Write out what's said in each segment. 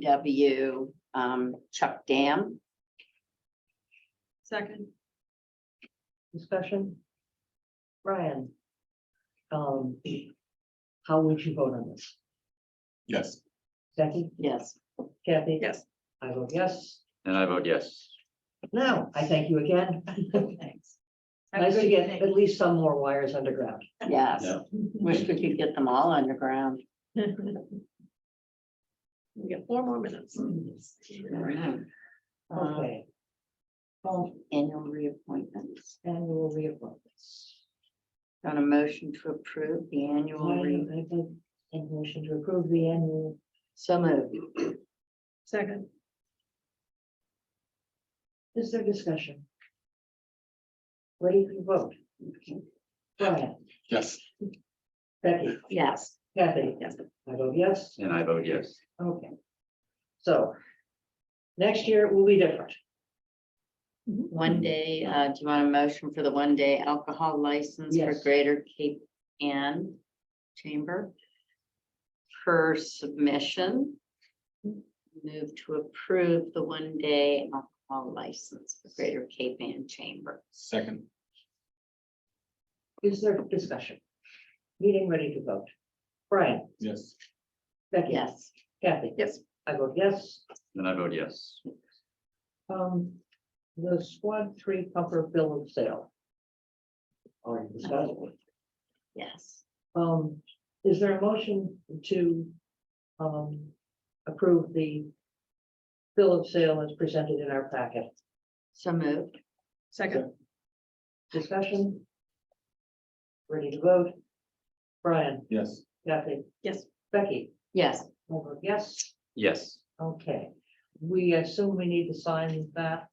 DPW um, Chuck Dam. Second. Discussion? Brian? Um, how would you vote on this? Yes. Becky, Yes, Kathy? Yes. I vote yes. And I vote yes. Now, I thank you again. Thanks. Have a Nice to good get evening. at least some more wires underground. yes. Yeah. Wish we could get them all underground. We got four more minutes. Mm. Uh, Um, Okay, full Annual reappointments. annual reappointments. On a motion to approve the annual. re- I think a motion to approve the annual, So moved. Second. is there discussion? Ready to vote? Brian, Yes. Becky, Yes. Kathy? Yes. I vote yes. And I vote yes. Okay. So. Next year it will be different. Mm-hmm. One day, uh, do you want a motion for the one day alcohol license for Yes. Greater Cape Ann Chamber? Per submission. Move to approve the one day alcohol license for Greater Cape Ann Chamber. Second. Is there discussion? Meeting ready to vote. Brian, Yes. Becky, Yes, Kathy, Yes. I vote yes. And I vote yes. Um, the squad three pumper bill of sale. Or discuss. yes. Um, is there a motion to, um, approve the bill of sale as presented in our packet? So moved. Second. Discussion? Ready to vote? Brian, Yes. Kathy, Yes. Becky? Yes, I vote Yes, Yes. okay. We assume we need to sign that.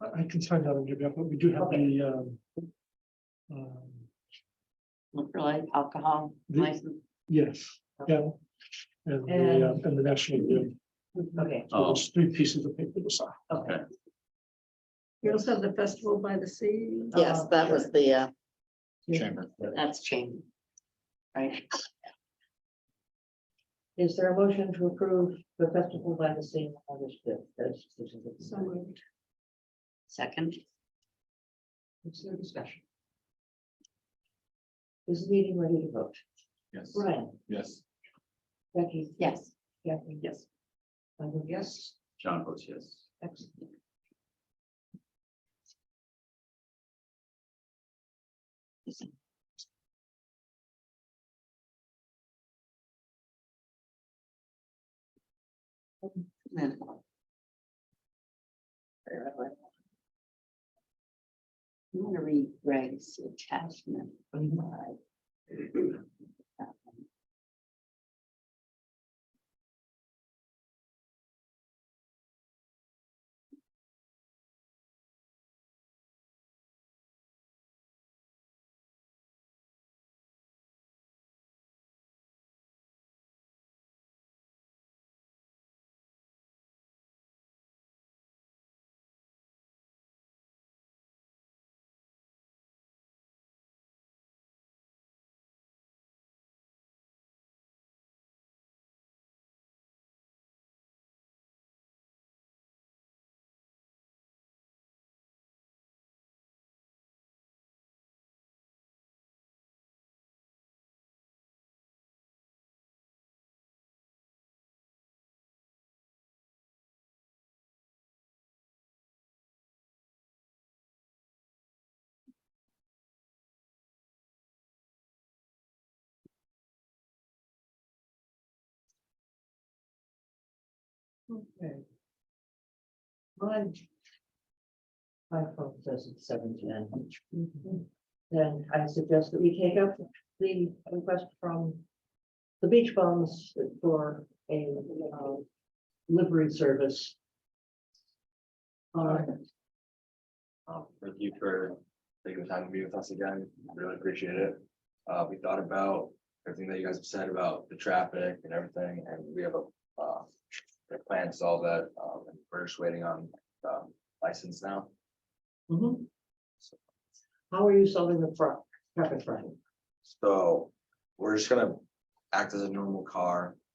I I can sign that and give you up, but we do have Okay. the, um, um, liquor li- alcohol The- Mm-hmm. license. yes, yeah. And the, uh, and the national, Guard. Mm-hmm. Okay, So Oh, there's three pieces of paper to sign. okay. You also have the festival by the sea. Yes, that was the, uh, Chamber. that's chamber. Right, Is there a motion to approve the festival by the sea on August fifth? That's- this is it. So moved. second, Is there discussion? Is the meeting ready to vote? Yes. Brian, Yes. Becky, yes. Kathy? Yes. I vote yes. John votes yes. Excellent. Then- I'm gonna read Greg's attachment. Okay. My. My phone says it's seven ten. Then I suggest that we take up the request from. The beach bums for a, um, livery service. Uh, Um, thank you for taking the time to be with us again. Really appreciate it. Uh, we thought about everything that you guys have said about the traffic and everything, and we have a, uh, a plan to solve that. Um, and we're just waiting on, um, license now. mhm. How are you solving the front, traffic front? So we're just gonna act as a normal car